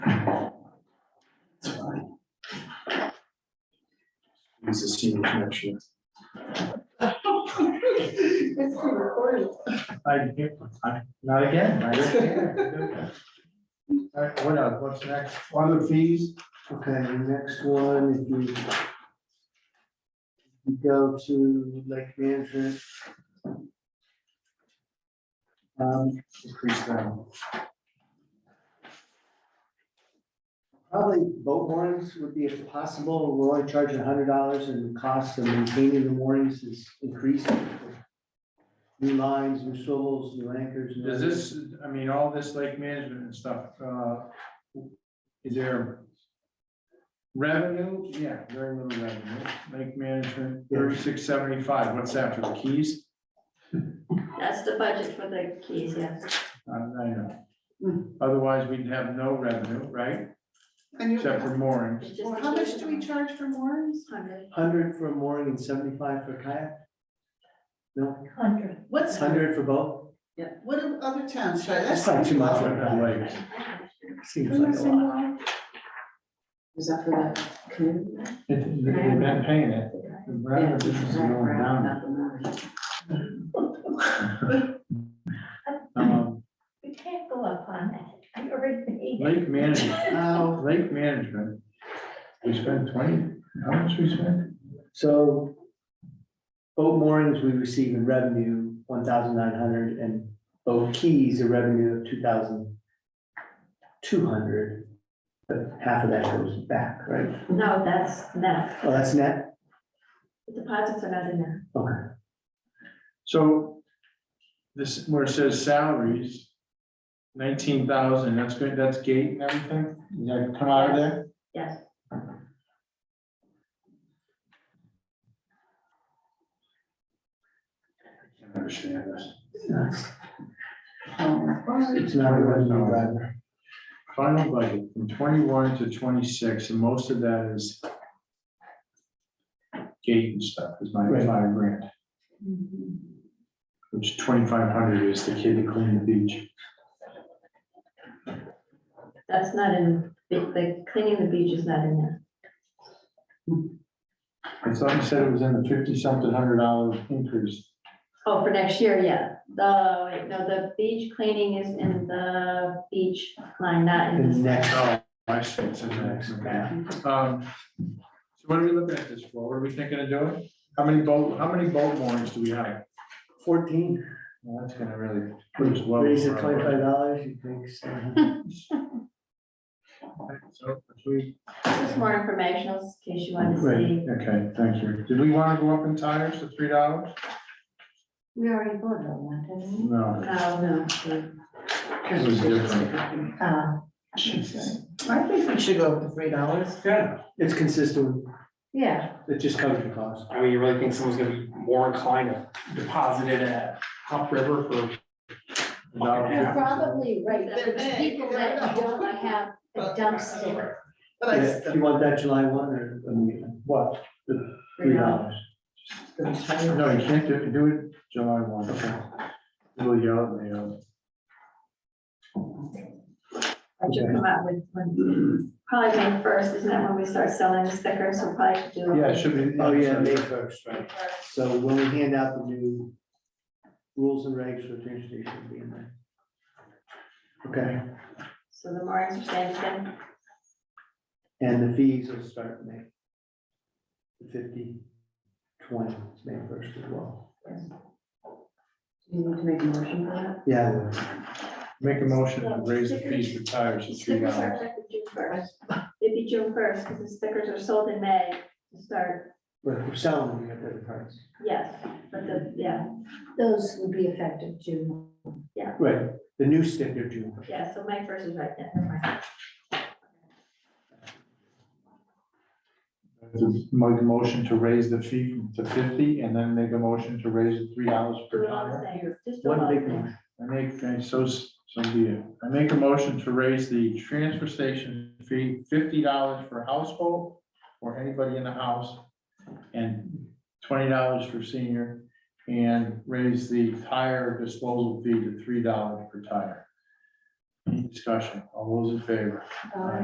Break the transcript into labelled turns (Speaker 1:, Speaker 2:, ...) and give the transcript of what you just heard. Speaker 1: He's a senior connection.
Speaker 2: It's being recorded.
Speaker 3: I didn't hear- I- Not again. I didn't hear. All right, what else? What's next?
Speaker 4: Other fees, okay, the next one, if you. you Go to lake management. Um,
Speaker 1: Increase them.
Speaker 4: probably boat moorings would be if possible, we're only charging hundred dollars and the cost of maintaining the moorings is increasing. New lines, new swivels, new anchors. new-
Speaker 3: Does this, I mean, all this lake management and stuff, uh, is there revenue? Yeah, very little revenue. Lake management, thirty-six seventy-five. What's that for the keys?
Speaker 2: That's the budget for the keys, yes.
Speaker 3: I don't know. Otherwise, we'd have no revenue, right?
Speaker 5: And you,
Speaker 3: Except for moorings.
Speaker 2: It's just
Speaker 5: well,
Speaker 2: the
Speaker 5: how
Speaker 2: keys
Speaker 5: much do we
Speaker 2: and-
Speaker 5: charge for moorings?
Speaker 2: Hundred.
Speaker 4: Hundred for a mooring and seventy-five for kayak? No,
Speaker 2: Hundred.
Speaker 5: What's,
Speaker 4: hundred for boat?
Speaker 5: what do other towns charge?
Speaker 4: That's not too much.
Speaker 3: Except for lakes.
Speaker 4: Seems like a lot.
Speaker 6: Is that for the community?
Speaker 3: You're not paying it. The revenue is going down. Um,
Speaker 7: We can't go up on that. I already paid.
Speaker 3: Lake management,
Speaker 4: Now,
Speaker 3: lake management, we spent twenty, how much we spent?
Speaker 4: So boat moorings, we receive in revenue one thousand nine hundred and boat keys, a revenue of two thousand two hundred. But half of that goes back, right?
Speaker 2: No, that's net.
Speaker 4: Oh, that's net?
Speaker 2: The Deposits are not in there.
Speaker 4: Okay.
Speaker 3: So this, where it says salaries, nineteen thousand, that's good, that's gate and everything, Does that come out of there?
Speaker 2: Yes.
Speaker 3: I can't Understand this.
Speaker 4: It's not a revenue driver.
Speaker 3: Final budget from twenty-one to twenty-six, and most of that is gate and stuff, is ninety-five grand. Which twenty-five hundred is the kid to clean the beach.
Speaker 2: That's not in, the- the cleaning the beach is not in there.
Speaker 3: I thought you said it was in the fifty-something hundred dollar increase.
Speaker 2: Oh, for next year, yeah. The, wait, no, the beach cleaning is in the beach line, not
Speaker 4: The
Speaker 2: in this.
Speaker 4: next,
Speaker 3: Oh, I see, it's in the next one. Um, So what are we looking at this for? What are we thinking of doing? How many boat, how many boat moorings do we have?
Speaker 4: fourteen,
Speaker 3: Well, that's gonna really. put us well
Speaker 4: raise it
Speaker 3: over our
Speaker 4: twenty-five dollars, you think? so?
Speaker 3: budget. So, if we-
Speaker 2: This is more informational in case you want to
Speaker 4: Right.
Speaker 2: see.
Speaker 3: Okay, thank you. Did we wanna go up in tires to three dollars?
Speaker 7: We already voted on that, didn't
Speaker 3: No,
Speaker 2: Uh, No,
Speaker 6: No.
Speaker 3: it was different.
Speaker 6: I
Speaker 7: we? Uh,
Speaker 6: think we should go up to three dollars.
Speaker 8: Yeah,
Speaker 4: It's consistent,
Speaker 7: yeah,
Speaker 4: it just covers the cost.
Speaker 8: I mean, you really think someone's gonna be more inclined to deposit it at Hop River for?
Speaker 3: No.
Speaker 7: you're probably right. There
Speaker 5: They're
Speaker 7: was
Speaker 5: big,
Speaker 7: people
Speaker 5: they're
Speaker 7: that
Speaker 5: not-
Speaker 7: don't have a dumpster.
Speaker 5: But I,
Speaker 4: Yeah,
Speaker 5: still-
Speaker 4: You want that July one or I mean, what? The Three dollars.
Speaker 3: No, you can't do, do it July one. Little yell at me, uh,
Speaker 2: I should come out with, one. probably May first, isn't that when we start selling the stickers? We'll probably do.
Speaker 3: Yeah, it should be. uh,
Speaker 4: Oh, yeah, May first, right?
Speaker 2: May 1st.
Speaker 4: So when we hand out the new rules and regs for the train station, it'll be in there. Okay,
Speaker 2: So the more understanding.
Speaker 4: and the fees will start May. Fifty, twenty, it's May first as well.
Speaker 6: You need to make a motion for that?
Speaker 4: Yeah, well,
Speaker 3: Make a motion to raise the fees for tires to three
Speaker 2: Stickers are
Speaker 3: dollars.
Speaker 2: effective June first. It'd be June first, because the stickers are sold in May to start,
Speaker 4: but if we're selling, we have the price.
Speaker 2: yes, but the, yeah,
Speaker 7: Those would be effective June.
Speaker 4: Right, the new sticker June.
Speaker 2: yeah, so May first is right then. never mind.
Speaker 3: Make a motion to raise the fee to fifty and then make a motion to raise it three dollars
Speaker 2: Do
Speaker 3: per
Speaker 2: it all the
Speaker 3: tire.
Speaker 2: same, just do it all
Speaker 4: One
Speaker 2: the
Speaker 4: big
Speaker 2: same.
Speaker 4: one.
Speaker 3: I make, I- so, s- so be it. I make a motion to raise the transfer station fee fifty dollars for household or anybody in the house and twenty dollars for senior and raise the tire disposal fee to three dollars per tire. Any discussion? All those in favor?
Speaker 6: Uh,